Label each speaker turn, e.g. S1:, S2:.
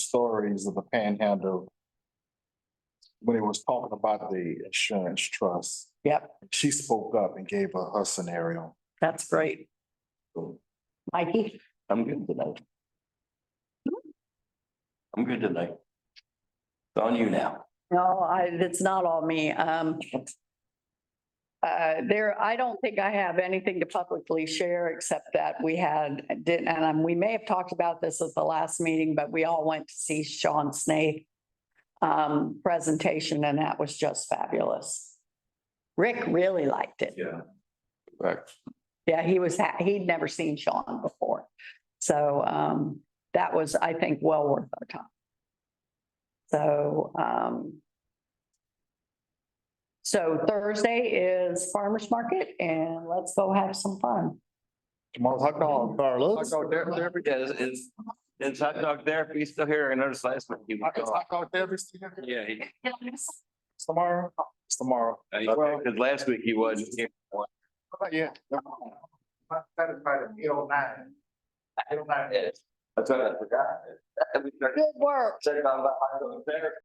S1: stories of the panhandle. When it was talking about the insurance trust,
S2: Yep,
S1: she spoke up and gave her, her scenario.
S2: that's great. Mikey?
S3: I'm good tonight. I'm good tonight. It's on you now.
S2: No, I, it's not all me. Um. Uh, there, I don't think I have anything to publicly share except that we had, did, and um, we may have talked about this at the last meeting, but we all went to see Sean Snaith. Um, presentation and that was just fabulous. Rick really liked it.
S1: Yeah.
S3: Correct.
S2: Yeah, he was, ha- he'd never seen Sean before. So um, that was, I think, well worth our time. So um. So Thursday is farmer's market and let's go have some fun.
S1: Tomorrow's hot dog,
S3: Hot
S1: Carlos.
S3: dog therapy, yeah, is, is, is hot dog therapy still here? I noticed last month he was
S1: Hot
S3: gone.
S1: dog therapy is together?
S3: Yeah, he,
S1: It's tomorrow, it's tomorrow.
S3: uh, cause last week he wasn't here.
S1: Yeah.
S3: That's what I forgot.
S2: Good work.
S3: Said about the hot dog therapy.